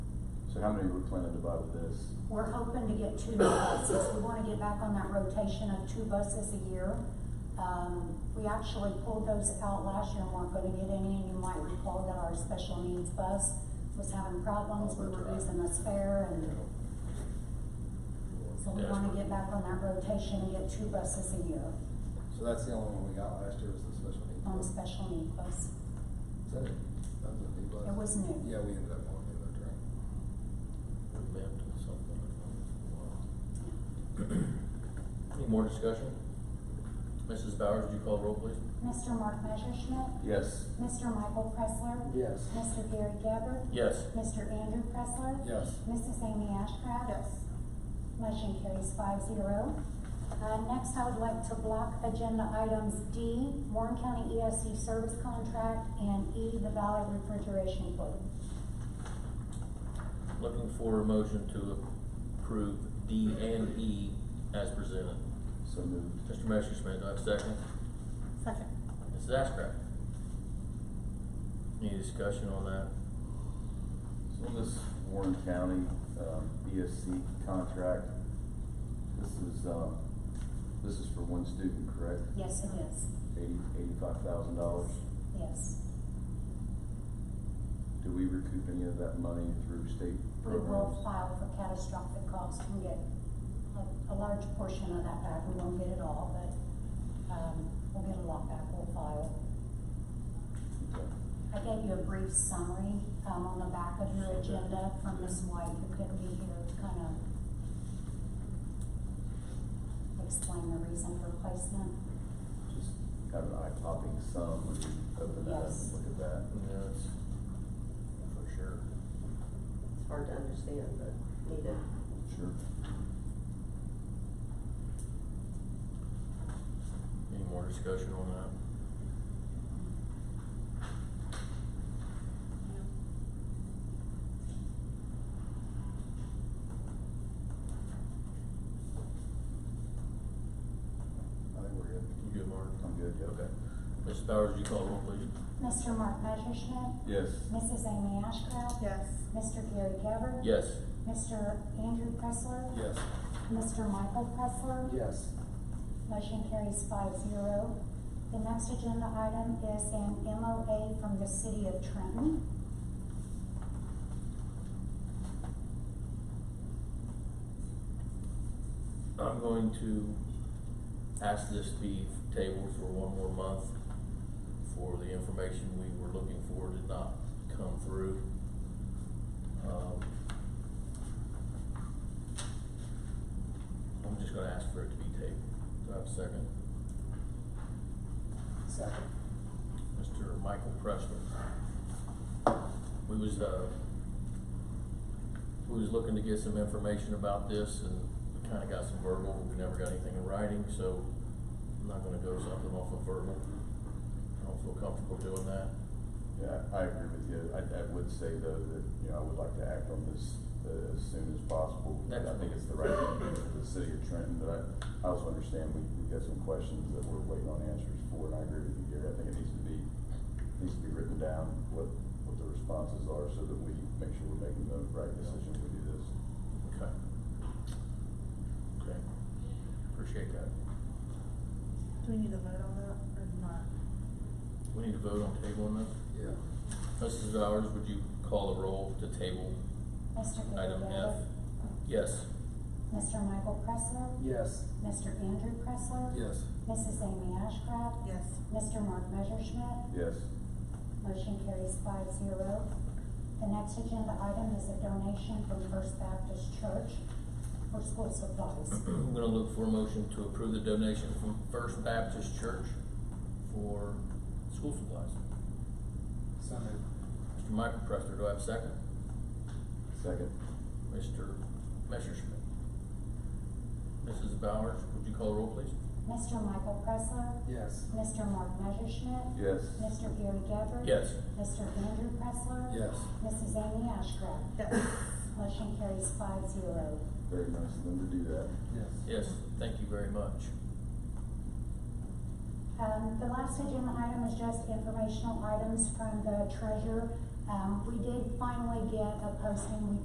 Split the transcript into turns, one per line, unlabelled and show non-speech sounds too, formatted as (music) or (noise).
So how many are we planning to buy with this?
We're hoping to get two new buses. We wanna get back on that rotation of two buses a year. Um, we actually pulled those out last year and weren't gonna get any, and you might recall that our special needs bus was having problems. We were losing a spare and so we wanna get back on that rotation and get two buses a year
So that's the only one we got last year was the special needs.
on
bus.
special need bus.
Is that it? That was a new bus?
It was new.
Yeah, we ended up on it, that's right.
Any more discussion? Mrs. Bowers, would you call the roll, please?
Mr. Mark Messerschmidt,
Yes.
Mr. Michael Pressler.
Yes.
Mr. Gary Gabbard.
Yes.
Mr. Andrew Pressler.
Yes.
Mrs. Amy Ashcraft.
Yes.
Motion carries five zero. Uh, next, I would like to block agenda items D, Warren County ESC service contract, and E, the Valley refrigeration quote.
Looking for a motion to approve D and E as presented.
So moved.
Mr. Messerschmidt, do I have a second?
Second.
Mrs. Ashcraft? Any discussion on that?
So on this Warren County, um, ESC contract, this is, um, this is for one student, correct?
Yes, it is.
Eighty, eighty-five thousand dollars.
Yes.
Do we recoup any of that money through state
We will
programs?
file for catastrophic costs and get a, a large portion of that back. We won't get it all, but, um, we'll get a lot back. We'll file.
Okay.
I gave you a brief summary, um, on the back of your agenda from Ms. White, who couldn't be here to kind of explain the reason for placement.
Just kind of an eye-popping sum, when you open that up
Yes.
and look at that.
No, it's for sure.
It's hard to understand, but needed.
Sure.
Any more discussion on that?
I think we're good.
You good, Mark?
I'm good, yeah.
Okay. Mrs. Bowers, would you call the roll, please?
Mr. Mark Messerschmidt,
Yes.
Mrs. Amy Ashcraft.
Yes.
Mr. Gary Gabbard.
Yes.
Mr. Andrew Pressler.
Yes.
Mr. Michael Pressler.
Yes.
Motion carries five zero. The next agenda item is an MOA from the city of Trenton.
I'm going to ask this to be tabled for one more month for the information we were looking for did not come through. Um, I'm just gonna ask for it to be tabled. Do I have a second?
Second.
Mr. Michael Pressler. We was, uh, we was looking to get some information about this and we kinda got some verbal, we never got anything in writing, so I'm not gonna go something off of verbal. I don't feel comfortable doing that.
Yeah, I agree with you. I, I would say though that, you know, I would like to act on this uh, as soon as possible. And I think it's the right thing to do for the city of Trenton, but I, I also understand we, we've got some questions that we're waiting on answers for, and I agree with you, Gary. I think it needs to be, needs to be written down, what, what the responses are, so that we make sure we're making the right decision when we do this.
Okay. Okay, appreciate that.
Do we need to vote on that or not?
We need to vote on table on this.
Yeah.
Mrs. Bowers, would you call the roll to table
Mr. Gary
item F?
Gabbard.
Yes.
Mr. Michael Pressler.
Yes.
Mr. Andrew Pressler.
Yes.
Mrs. Amy Ashcraft.
Yes.
Mr. Mark Messerschmidt.
Yes.
Motion carries five zero. The next agenda item is a donation from First Baptist Church for school
(clears throat)
supplies.
I'm gonna look for a motion to approve the donation from First Baptist Church for school supplies.
Second.
Mr. Michael Pressler, do I have a second?
Second.
Mr. Messerschmidt. Mrs. Bowers, would you call the roll, please?
Mr. Michael Pressler.
Yes.
Mr. Mark Messerschmidt.
Yes.
Mr. Gary Gabbard.
Yes.
Mr. Andrew Pressler.
Yes.
Mrs. Amy Ashcraft.
Yes.
Motion carries five zero.
Very nice of them to do that.
Yes.
Yes, thank you very much.
Um, the last agenda item is just informational items from the treasurer. Um, we did finally get a posting, we